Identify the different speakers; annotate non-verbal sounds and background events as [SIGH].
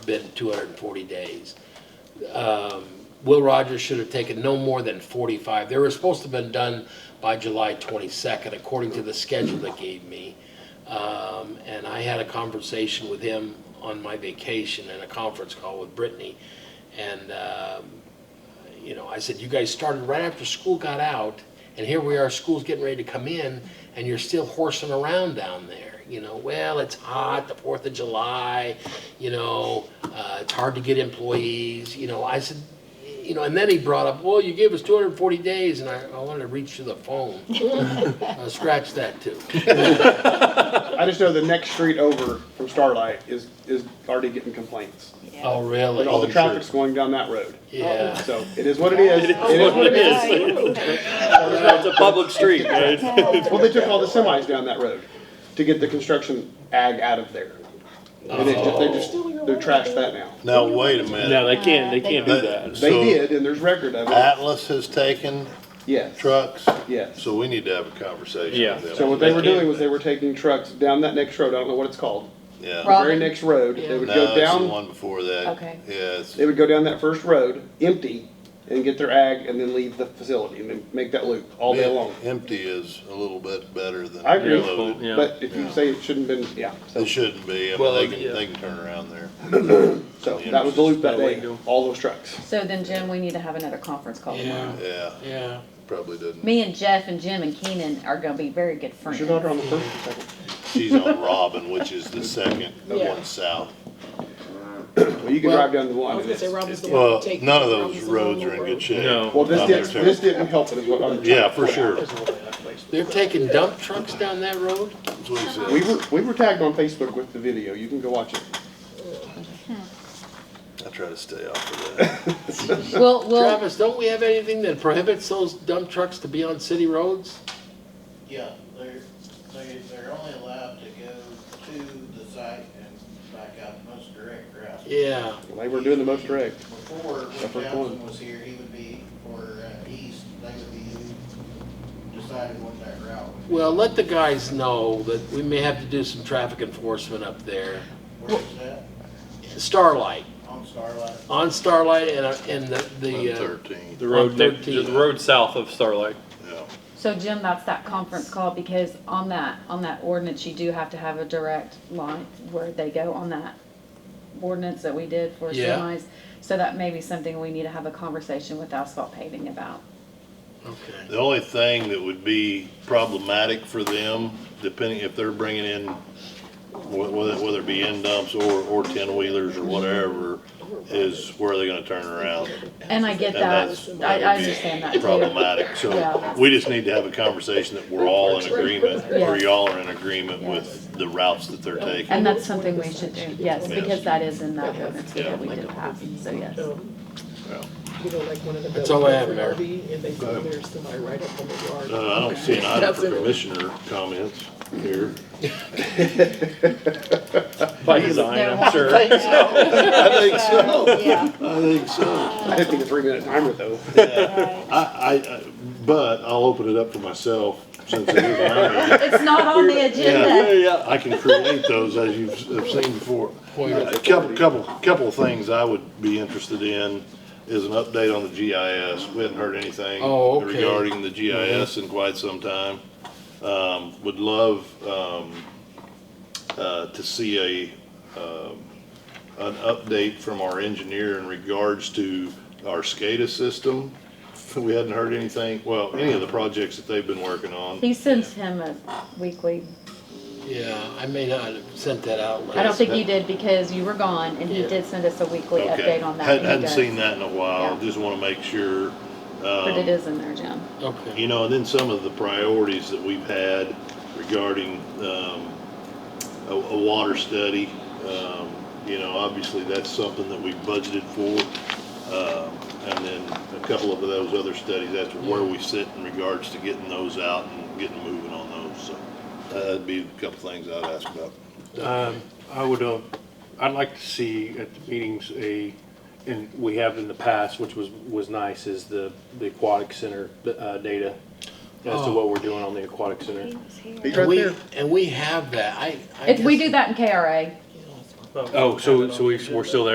Speaker 1: been 240 days. Um, Will Rogers should have taken no more than 45. They were supposed to have been done by July 22nd, according to the schedule they gave me. Um, And I had a conversation with him on my vacation and a conference call with Brittany. And, um, you know, I said, you guys started right after school got out, and here we are, school's getting ready to come in, and you're still horsing around down there. You know, well, it's hot, the Fourth of July, you know, uh, it's hard to get employees, you know, I said, you know, and then he brought up, well, you gave us two hundred and forty days, and I, I wanted to reach to the phone. Uh, Scratch that too.
Speaker 2: I just know the next street over from Starlight is, is already getting complaints.
Speaker 1: Oh,
Speaker 2: Like all the
Speaker 1: really?
Speaker 2: traffic's going down that road.
Speaker 1: Yeah.
Speaker 2: So it is what it is. It is what it is.
Speaker 3: [LAUGHS]
Speaker 4: It's a public street, right? [LAUGHS]
Speaker 2: Well, they took all the semis down that road to get the construction ag out of there. And it just, they
Speaker 3: Oh.
Speaker 2: just, they trashed that now.
Speaker 3: Now, wait a
Speaker 4: No,
Speaker 3: minute.
Speaker 4: they can't, they can't do that.
Speaker 2: They
Speaker 3: So-
Speaker 2: did, and there's record of it.
Speaker 3: Atlas has taken
Speaker 2: Yes.
Speaker 3: trucks,
Speaker 2: Yes.
Speaker 3: so we need to have a conversation
Speaker 4: Yeah.
Speaker 3: with them.
Speaker 2: So what they were doing was they were taking trucks down that next road. I don't know what it's called. The
Speaker 3: Yeah.
Speaker 2: very next road. They would
Speaker 3: No,
Speaker 2: go
Speaker 3: it's the
Speaker 2: down
Speaker 3: one before that.
Speaker 5: Okay.
Speaker 3: Yeah, it's,
Speaker 2: They would go down that first road, empty, and get their ag, and then leave the facility, and then make that loop all day long.
Speaker 3: empty is a little bit better than
Speaker 2: I agree,
Speaker 3: loaded.
Speaker 4: Yeah.
Speaker 2: but if you say it shouldn't have been, yeah, so,
Speaker 3: It shouldn't be, I mean,
Speaker 4: Well,
Speaker 3: they can,
Speaker 4: yeah.
Speaker 3: they can turn around there.
Speaker 2: so that was the loop that
Speaker 4: That way
Speaker 2: day,
Speaker 4: to go.
Speaker 2: all those trucks.
Speaker 5: So then, Jim, we need to have another conference call tomorrow.
Speaker 3: Yeah,
Speaker 1: Yeah.
Speaker 3: probably didn't.
Speaker 5: Me and Jeff and Jim and Keenan are gonna be very good
Speaker 2: Is
Speaker 5: friends.
Speaker 2: your daughter on the first or second?
Speaker 3: She's on Robin, which is the second, the
Speaker 6: Yeah.
Speaker 3: one south.
Speaker 2: Well, you can
Speaker 6: Well,
Speaker 2: drive down the
Speaker 6: I
Speaker 2: one.
Speaker 6: was
Speaker 2: and
Speaker 6: gonna say
Speaker 2: it's-
Speaker 6: Robin's the one
Speaker 3: Well,
Speaker 6: that take-
Speaker 3: none of those
Speaker 6: Robin's the
Speaker 3: roads
Speaker 6: one
Speaker 3: are in
Speaker 6: that
Speaker 3: good
Speaker 6: works.
Speaker 3: shape.
Speaker 4: No.
Speaker 2: Well, this
Speaker 3: Not there,
Speaker 2: didn't,
Speaker 3: too.
Speaker 2: this didn't help it, is what I'm.
Speaker 3: Yeah, for sure.
Speaker 1: They're taking dump trucks down that road?
Speaker 3: That's what he said.
Speaker 2: We were, we were tagged on Facebook with the video, you can go watch it.
Speaker 3: I try to stay off of that.
Speaker 5: We'll, we'll,
Speaker 1: Travis, don't we have anything that prohibits those dump trucks to be on city roads?
Speaker 7: Yeah, they're, they, they're only allowed to go to the site and back out the most direct route.
Speaker 1: Yeah.
Speaker 2: They were doing the most direct.
Speaker 7: Before,
Speaker 2: Except for
Speaker 7: when
Speaker 2: Clinton.
Speaker 7: Townsend was here, he would be, or uh, east, they would be deciding what that route would be.
Speaker 1: Well, let the guys know that we may have to do some traffic enforcement up there.
Speaker 7: Where is that?
Speaker 1: Starlight,
Speaker 7: On Starlight?
Speaker 1: on Starlight and, uh, and the, the,
Speaker 3: One
Speaker 1: uh,
Speaker 3: thirteen,
Speaker 4: The road, next-
Speaker 1: 113.
Speaker 4: the road south of Starlight.
Speaker 3: yeah.
Speaker 5: so Jim, that's that conference call, because on that, on that ordinance, you do have to have a direct line where they go on that ordinance that we did for
Speaker 1: Yeah.
Speaker 5: semis. So that may be something we need to have a conversation with asphalt paving about.
Speaker 1: okay.
Speaker 3: The only thing that would be problematic for them, depending if they're bringing in, wh- whether, whether it be end dumps or, or ten wheelers or whatever, is where are they gonna turn around?
Speaker 5: And I get
Speaker 3: And
Speaker 5: that,
Speaker 3: that's
Speaker 5: I, I
Speaker 3: would be
Speaker 5: understand that too.
Speaker 3: Problematic, so
Speaker 5: Yeah.
Speaker 3: we just need to have a conversation that we're all in agreement, or
Speaker 5: Yeah.
Speaker 3: y'all are in agreement with the routes that they're taking.
Speaker 5: And that's something we should do, yes,
Speaker 3: Yes.
Speaker 5: because that is in that ordinance
Speaker 3: Yeah.
Speaker 5: that we did pass, so yes.
Speaker 6: Um,
Speaker 3: Yeah.
Speaker 6: You know, like one of the.
Speaker 1: That's all I have,
Speaker 6: buildings
Speaker 1: Mayor.
Speaker 6: for RV, And they put their semi right up on the yard.
Speaker 3: Uh, I don't see an item for commissioner comments here.
Speaker 4: By design,
Speaker 5: They're-
Speaker 4: I'm [LAUGHS] sure.
Speaker 3: I think so,
Speaker 5: Yeah,
Speaker 3: I think so.
Speaker 2: I didn't think a three minute timer though.
Speaker 3: I, I, I- but I'll open it up to myself since it is mine.
Speaker 5: it's not on the agenda.
Speaker 3: Yeah, yeah, I can create those as you've have seen before. A couple, couple, couple of things I would be interested in is an update on the GIS. We hadn't heard anything
Speaker 1: Oh, okay.
Speaker 3: regarding the GIS in quite some time. Um, would love, um, uh, to see a, um, an update from our engineer in regards to our SCADA system. We hadn't heard anything, well, any of the projects that they've been working on.
Speaker 5: He sends him a weekly,
Speaker 1: Yeah, I may not have sent that out last.
Speaker 5: I don't think you did because you were gone and he
Speaker 1: Yeah.
Speaker 5: did send us a weekly
Speaker 3: Okay.
Speaker 5: update on that. and
Speaker 3: Hadn't,
Speaker 5: he
Speaker 3: hadn't
Speaker 5: does.
Speaker 3: seen that in a while,
Speaker 5: Yeah.
Speaker 3: just wanna make sure,
Speaker 5: But it
Speaker 3: um,
Speaker 5: is in there, Jim.
Speaker 1: Okay.
Speaker 3: you know, and then some of the priorities that we've had regarding, um, a, a water study. Um, you know, obviously that's something that we budgeted for. Um, and then a couple of those other studies, that's where we sit in regards to getting those out and getting moving on those, so. uh, That'd be a couple things I'd ask about.
Speaker 8: I would, uh, I'd like to see at the meetings a, and we have in the past, which was, was nice, is the, the aquatic center, uh, data as
Speaker 4: Oh.
Speaker 8: to what we're doing on the aquatic center.
Speaker 2: He's
Speaker 1: And
Speaker 2: right
Speaker 1: we,
Speaker 2: there.
Speaker 1: and we have that, I. I
Speaker 5: If we
Speaker 1: guess-
Speaker 5: do that in KRA,
Speaker 8: Oh, so, so we, we're still there.